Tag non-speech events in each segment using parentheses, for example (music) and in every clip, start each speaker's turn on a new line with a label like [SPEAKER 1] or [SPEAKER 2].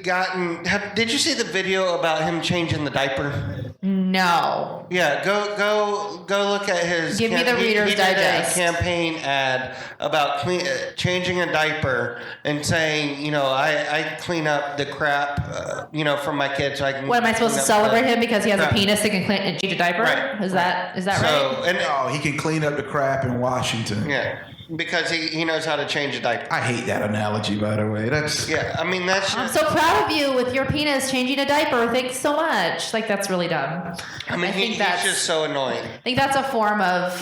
[SPEAKER 1] begotten. Have, did you see the video about him changing the diaper?
[SPEAKER 2] No.
[SPEAKER 1] Yeah, go go go look at his.
[SPEAKER 2] Give me the
[SPEAKER 1] he-
[SPEAKER 2] Reader's
[SPEAKER 1] he did
[SPEAKER 2] Digest.
[SPEAKER 1] A campaign ad about clean, uh, changing a diaper and saying, you know, I, I clean up the crap, uh, you know, from my kids. So I can.
[SPEAKER 2] What am I supposed to
[SPEAKER 1] clean up the-
[SPEAKER 2] celebrate him because he has a
[SPEAKER 1] Right.
[SPEAKER 2] penis that can clean and change a diaper?
[SPEAKER 1] Right.
[SPEAKER 2] Is that is that
[SPEAKER 1] So
[SPEAKER 2] right?
[SPEAKER 1] and
[SPEAKER 3] No, oh, he can clean up the crap in Washington.
[SPEAKER 1] yeah, because he, he knows how to change a diaper.
[SPEAKER 3] I hate that analogy, by the way. That's
[SPEAKER 1] Yeah, I mean that's.
[SPEAKER 2] I'm
[SPEAKER 1] Just,
[SPEAKER 2] so proud of you with your penis changing a diaper. Thanks so much. Like that's really dumb.
[SPEAKER 1] I mean, he-
[SPEAKER 2] think
[SPEAKER 1] he's
[SPEAKER 2] that's
[SPEAKER 1] just so annoying.
[SPEAKER 2] I think that's a form of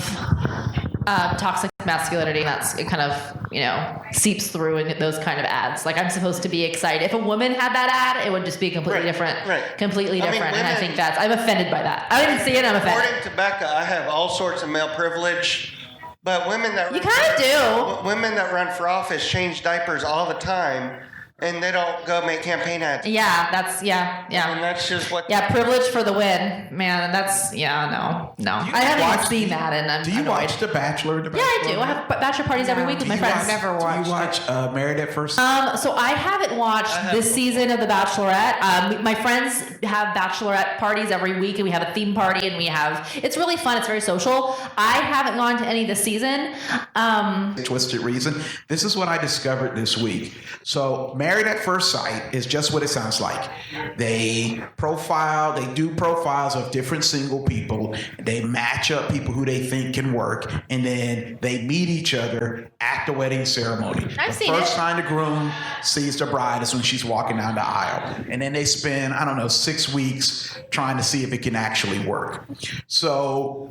[SPEAKER 2] um, toxic masculinity. and That's it kind of you know seeps through in those kind of ads. Like I'm supposed to be excited. If a woman had that ad, it would just be completely
[SPEAKER 1] Right,
[SPEAKER 2] different.
[SPEAKER 1] right.
[SPEAKER 2] Completely
[SPEAKER 1] I mean,
[SPEAKER 2] different. and I
[SPEAKER 1] women-
[SPEAKER 2] think that's I'm offended by that. I didn't see it. I'm offended.
[SPEAKER 1] According to Becca, I have all sorts of male privilege, but women that
[SPEAKER 2] You kinda do.
[SPEAKER 1] W- Women that run for office change diapers all the time, and they don't go make campaign ads.
[SPEAKER 2] Yeah, that's yeah,
[SPEAKER 1] and
[SPEAKER 2] yeah.
[SPEAKER 1] that's just what.
[SPEAKER 2] Yeah, privilege for the win. Man, that's yeah, no. No.
[SPEAKER 3] Do you
[SPEAKER 2] I haven't
[SPEAKER 3] watch-
[SPEAKER 2] even seen that and I'm
[SPEAKER 3] Do you
[SPEAKER 2] annoyed.
[SPEAKER 3] watch The Bachelor? The
[SPEAKER 2] Yeah, I do.
[SPEAKER 3] Bachelor?
[SPEAKER 2] I have b- bachelor parties every
[SPEAKER 4] No.
[SPEAKER 2] week with
[SPEAKER 3] Do
[SPEAKER 2] my
[SPEAKER 3] you
[SPEAKER 2] friends.
[SPEAKER 4] I've never
[SPEAKER 3] Do
[SPEAKER 4] watched
[SPEAKER 3] you watch uh, Married at First? Sight?
[SPEAKER 2] Um, so I haven't watched
[SPEAKER 1] I haven't.
[SPEAKER 2] this season of The Bachelorette. Um, my friends have bachelorette parties every week, and we have a theme party, and we have it's really fun. It's very social. I haven't gone to any this season. Um,
[SPEAKER 3] twisted reason. This is what I discovered this week. So, Married at First Sight is just what it sounds like. They profile, they do profiles of different single people. They match up people who they think can work, and then they meet each other at the wedding ceremony.
[SPEAKER 2] I've
[SPEAKER 3] the
[SPEAKER 2] seen
[SPEAKER 3] first
[SPEAKER 2] it.
[SPEAKER 3] time the groom sees the bride is when she's walking down the aisle, and then they spend I don't know six weeks trying to see if it can actually work. So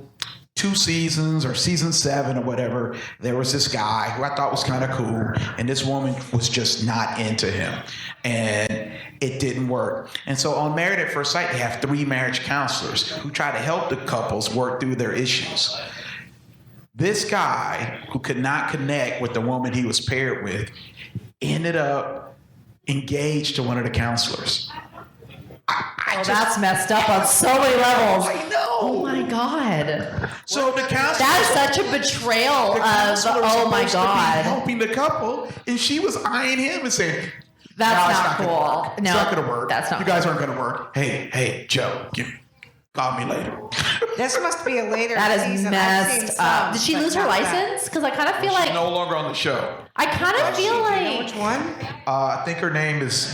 [SPEAKER 3] two seasons or season seven or whatever, there was this guy who I thought was kind of cool, and this woman was just not into him. And it didn't work. And so on Married at First Sight, they have three marriage counselors who try to help the couples work through their issues. This guy who could not connect with the woman he was paired with ended up engaged to one of the counselors. I, I
[SPEAKER 2] well,
[SPEAKER 3] just,
[SPEAKER 2] oh, that's messed up on so many levels.
[SPEAKER 3] I know.
[SPEAKER 2] Oh my god,
[SPEAKER 3] So the counselor
[SPEAKER 2] that is such a betrayal
[SPEAKER 3] The
[SPEAKER 2] of.
[SPEAKER 3] counselor was
[SPEAKER 2] Oh my
[SPEAKER 3] supposed to be
[SPEAKER 2] god,
[SPEAKER 3] helping the couple, and she was eyeing him and saying, "No, it's
[SPEAKER 2] that's
[SPEAKER 3] not gonna
[SPEAKER 2] not
[SPEAKER 3] work.
[SPEAKER 2] cool. No,
[SPEAKER 3] it's not gonna work.
[SPEAKER 2] That's not.
[SPEAKER 3] You guys aren't gonna work. Hey, hey, Joe, you, call me
[SPEAKER 2] (laughs)
[SPEAKER 3] later."
[SPEAKER 4] This must be a later
[SPEAKER 2] That is
[SPEAKER 4] season. I've seen
[SPEAKER 2] messed up.
[SPEAKER 4] some,
[SPEAKER 2] Did she
[SPEAKER 4] but
[SPEAKER 2] lose her
[SPEAKER 4] not that.
[SPEAKER 2] license? Because I kind of feel like
[SPEAKER 3] She's no longer on the show.
[SPEAKER 2] I kind of feel
[SPEAKER 4] Do you know which
[SPEAKER 2] like
[SPEAKER 4] one
[SPEAKER 3] Uh, I think her name is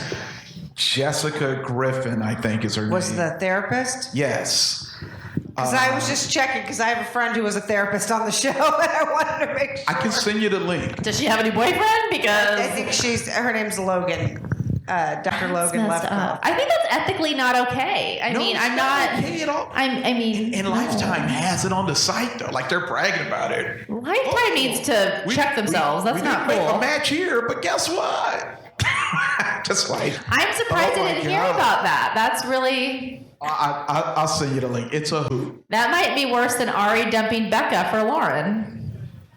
[SPEAKER 3] Jessica Griffin. I think is her
[SPEAKER 4] was
[SPEAKER 3] name.
[SPEAKER 4] the therapist?
[SPEAKER 3] yes.
[SPEAKER 4] Because I was just checking because I have a friend who was a therapist on the (laughs) show, and I wanted to make. Sure.
[SPEAKER 3] I can send you the link.
[SPEAKER 2] does she have any boyfriend? Because
[SPEAKER 4] I think she's her name's Logan, uh, Dr. Logan
[SPEAKER 2] That's messed up.
[SPEAKER 4] Lefkoff.
[SPEAKER 2] I think that's ethically not okay. I
[SPEAKER 3] No,
[SPEAKER 2] mean,
[SPEAKER 3] it's
[SPEAKER 2] I'm not.
[SPEAKER 3] okay at all.
[SPEAKER 2] I'm. I mean,
[SPEAKER 3] and
[SPEAKER 2] no.
[SPEAKER 3] Lifetime has it on the site though. Like they're bragging about it.
[SPEAKER 2] Lifetime
[SPEAKER 3] Oh,
[SPEAKER 2] needs to
[SPEAKER 3] we-
[SPEAKER 2] check
[SPEAKER 3] we-
[SPEAKER 2] themselves. that's
[SPEAKER 3] we
[SPEAKER 2] not
[SPEAKER 3] didn't make a
[SPEAKER 2] cool.
[SPEAKER 3] match here, but guess what? (laughs) Just like
[SPEAKER 2] I'm surprised
[SPEAKER 3] Oh
[SPEAKER 2] I
[SPEAKER 3] my
[SPEAKER 2] didn't hear
[SPEAKER 3] God.
[SPEAKER 2] about that. That's really.
[SPEAKER 3] I, I, I'll send you the link. It's a hoot.
[SPEAKER 2] That might be worse than Ari dumping Becca for Lauren.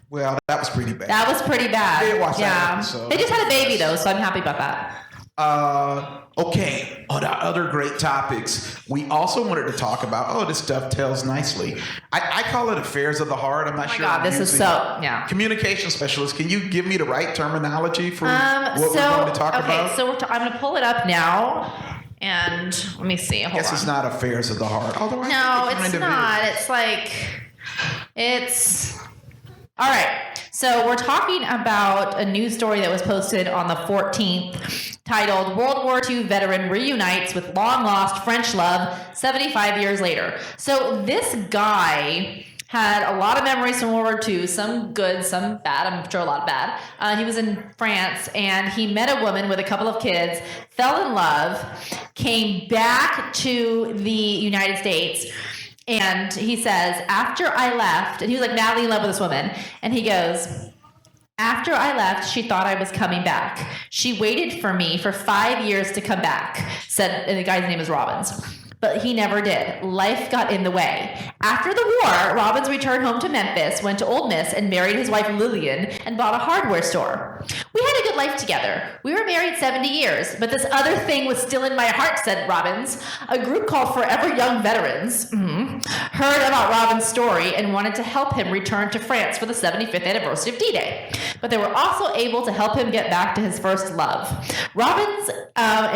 [SPEAKER 3] Well, that was pretty bad.
[SPEAKER 2] That was pretty bad.
[SPEAKER 3] I didn't watch that
[SPEAKER 2] yeah.
[SPEAKER 3] episode.
[SPEAKER 2] They just had a baby though, so I'm happy about that.
[SPEAKER 3] Uh, okay, on our other great topics, we also wanted to talk about. Oh, this dovetails nicely. I, I call it affairs of the heart. I'm not
[SPEAKER 2] Oh my
[SPEAKER 3] sure.
[SPEAKER 2] God,
[SPEAKER 3] I'm
[SPEAKER 2] this is
[SPEAKER 3] using-
[SPEAKER 2] so- yeah.
[SPEAKER 3] Communication specialist, can you give me the right terminology for
[SPEAKER 2] Um.
[SPEAKER 3] what
[SPEAKER 2] so
[SPEAKER 3] we're going to talk
[SPEAKER 2] okay.
[SPEAKER 3] about?
[SPEAKER 2] So we're t- I'm going to pull it up now, and let me see. Hold
[SPEAKER 3] I guess
[SPEAKER 2] on.
[SPEAKER 3] it's not affairs of the heart. Although I
[SPEAKER 2] No,
[SPEAKER 3] think it
[SPEAKER 2] it's
[SPEAKER 3] kind of
[SPEAKER 2] not.
[SPEAKER 3] is.
[SPEAKER 2] It's like it's all right. So we're talking about a news story that was posted on the 14th, titled "World War II Veteran Reunites with Long Lost French Love 75 Years Later." So this guy had a lot of memories from World War II, some good, some bad. I'm sure a lot of bad. Uh, he was in France and he met a woman with a couple of kids, fell in love, came back to the United States. And he says, after I left, and he was like madly in love with this woman. And he goes, after I left, she thought I was coming back. She waited for me for five years to come back, said, and the guy's name is Robbins. But he never did. Life got in the way. After the war, Robbins returned home to Memphis, went to Old Miss, and married his wife Lillian and bought a hardware store. We had a good life together. We were married 70 years, but this other thing was still in my heart, said Robbins. A group called Forever Young Veterans mhm, heard about Robbins' story and wanted to help him return to France for the 75th anniversary of D Day. But they were also able to help him get back to his first love. Robbins uh,